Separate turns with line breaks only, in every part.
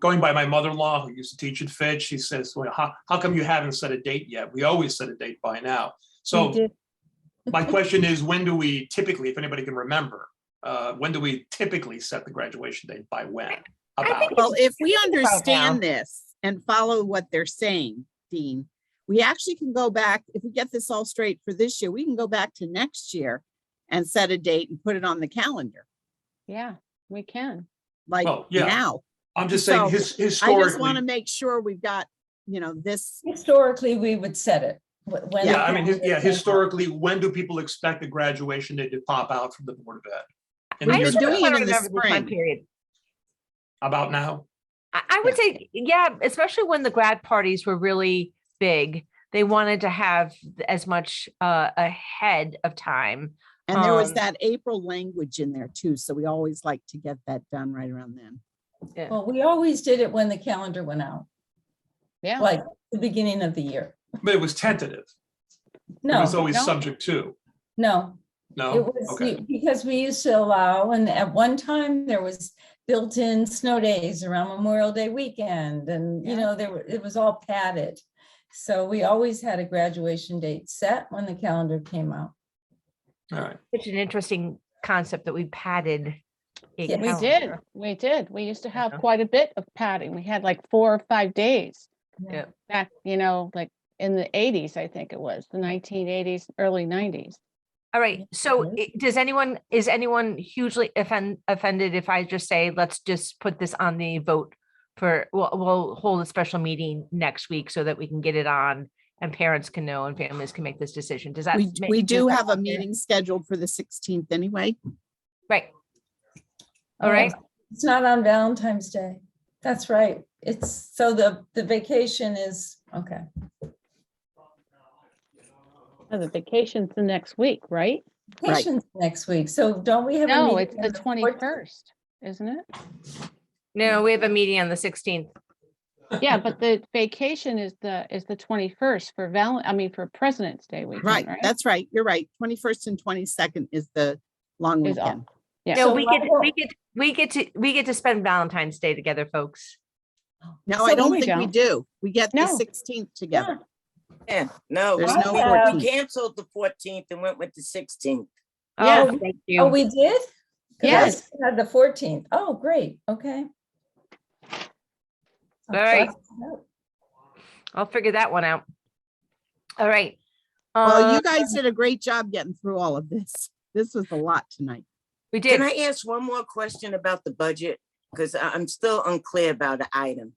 going by my mother-in-law who used to teach at Fed, she says, well, how, how come you haven't set a date yet? We always set a date by now. So
did.
my question is, when do we typically, if anybody can remember, uh, when do we typically set the graduation date by when?
I
About,
think it's
Well, if we
now.
understand this and follow what they're saying, Dean, we actually can go back, if we get this all straight for this year, we can go back to next year and set a date and put it on the calendar,
Yeah, we can.
like
Well, Oh, yeah.
now.
I'm just saying
so
his,
I just want
historically,
to make sure we've got, you know, this,
Historically, we would set it. wh- when the
yeah, I mean, his-
calendar
yeah,
came out.
historically, when do people expect the graduation date to pop out from the Board of Ed? In
I
the
you're
year-
just- doing it
wanna
in the
remember time
spring.
period.
About now?
I, I would say, yeah, especially when the grad parties were really big, they wanted to have as much uh, ahead of time.
and there was
Um,
that April language in there too, so we always like to get that done right around then.
Well, we always did it when the calendar went out,
Yeah.
like the beginning of the year.
But it was tentative. It
No,
was always
no.
subject to,
no, It
no?
was
Okay.
the- because we used to allow, and at one time there was built-in snow days around Memorial Day weekend and, you
Yeah.
know, there were, it was all padded. So we always had a graduation date set when the calendar came out.
All right.
Such an interesting concept that we padded. a
Yes.
We did,
calendar.
we did. We used to have
Yeah.
quite a bit of padding. We had like four or five days.
Yeah.
Back, you know, like in the eighties, I think it was, the nineteen eighties, early nineties.
All right. So
Mhm.
i- does anyone, is anyone hugely offend, offended if I just say, let's just put this on the vote for, we'll, we'll hold a special meeting next week so that we can get it on and parents can know and families can make this decision. Does that?
We,
make-
we
does
do
that
have a
sound fair?
meeting scheduled for the sixteenth anyway.
Right. All right.
It's not on Valentine's Day. That's right. It's, so the, the vacation is, okay.
The vacation's the next week, right?
Right.
Vacation's next week. So don't we have? a
No,
meeting
it's
on
the
14th?
twenty-first, isn't it?
No, we have a meeting on the sixteenth.
Yeah, but the vacation is the, is the twenty-first for Valen, I mean, for President's Day weekend,
Right,
right?
that's right. You're right. Twenty-first and twenty-second is the long
Is off.
weekend.
Yeah.
No,
So
we
why
get,
don't-
we get, we get to, we get to spend Valentine's Day together, folks.
No,
So
I don't
we
think we
don't.
do. We get the
No.
sixteenth together.
Yeah, no.
There's
we
no
can't- We
14th.
canceled the fourteenth and went with the sixteenth.
Yeah.
Oh,
Oh,
thank
Oh,
you.
we did? 'Cause I
Yes.
had The fourteenth. Oh, great. Okay.
All right. I'll figure that one out. All right.
Well,
Uh,
you guys did a great job getting through all of this. This was a lot tonight.
we did.
Can I ask one more question about the budget? Because I'm still unclear about the item.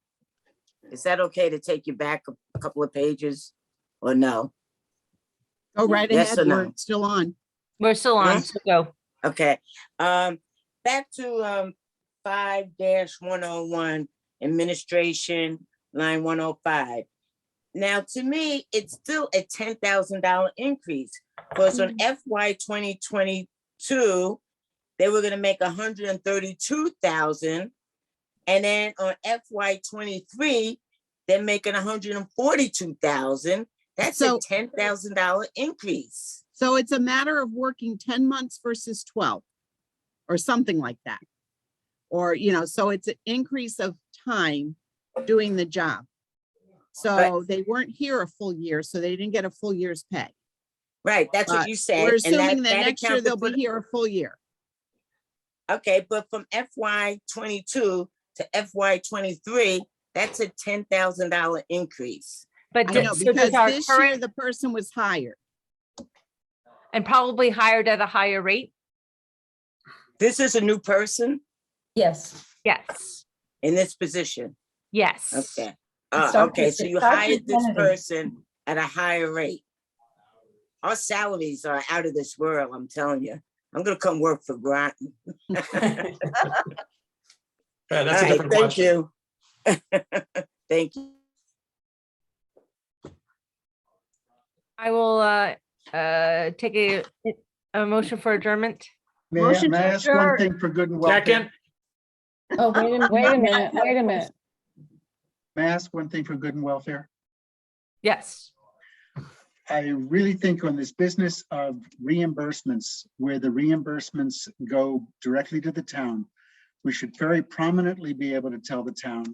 Is that okay to take you back a- a couple of pages or no?
Go right
Yes
ahead.
or no?
We're still on.
We're still
Yeah.
on, so go.
Okay, um, back to, um, five dash one oh one, administration, line one oh five. Now, to me, it's still a ten thousand dollar increase, because on FY twenty twenty-two, they were gonna make a hundred and thirty-two thousand. And then on FY twenty-three, they're making a hundred and forty-two thousand. That's a
So-
ten thousand dollar increase.
So it's a matter of working ten months versus twelve or something like that. Or, you know, so it's an increase of time doing the job. So they weren't here a full year, so they didn't get a full year's pay.
Right, that's
But
what you said.
We're
and that-
assuming that
that
next year
accounted
they'll
for
be
the-
here a full year.
Okay, but from FY twenty-two to FY twenty-three, that's a ten thousand dollar increase.
But
I
d-
know,
so does
because
our
this year
current-
the person was hired.
and probably hired at a higher rate?
This is a new person
Yes.
Yes,
in this position.
yes.
Okay. Uh,
Dr.
okay, so
Sa-
you
Dr.
hired this
Kennedy.
person at a higher rate. Our salaries are out of this world, I'm telling you. I'm gonna come work for Grant.
Yeah,
All
that's a
right,
different
thank
question.
you. Thank you.
I will uh, uh, take a, a motion for adjournment.
May I,
Motion
may I
to
ask one
adjourn.
thing for good and welfare?
Second,
Oh, wait a minute.
Wait a minute, wait a minute.
May I ask one thing for good and welfare?
Yes.
I really think on this business of reimbursements, where the reimbursements go directly to the town, we should very prominently be able to tell the town